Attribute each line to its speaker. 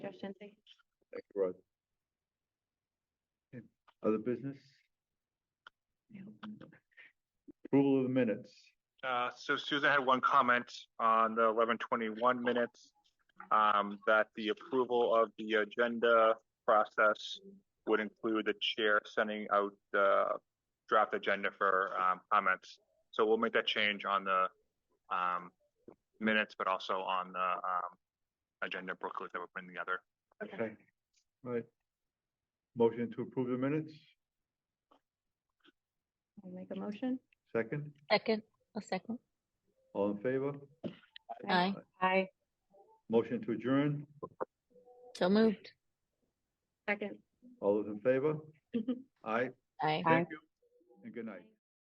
Speaker 1: Christian, thank you.
Speaker 2: Thank you, Rod. Okay, Other business? Approval of the minutes.
Speaker 3: Uh, so Susan had one comment on the eleven twenty-one minutes. Um, that the approval of the agenda process would include the chair sending out the draft agenda for, um, comments. So we'll make that change on the, um, minutes, but also on the, um, agenda booklet that we're putting together.
Speaker 1: Okay.
Speaker 2: Okay, right. Motion to approve the minutes,
Speaker 1: I'll make a motion.
Speaker 2: second,
Speaker 4: Second, a second.
Speaker 2: all in favor?
Speaker 4: Aye.
Speaker 1: Aye.
Speaker 2: Motion to adjourn,
Speaker 4: So moved.
Speaker 1: Second.
Speaker 2: all those in favor? Aye,
Speaker 4: Aye.
Speaker 2: thank you, and good night.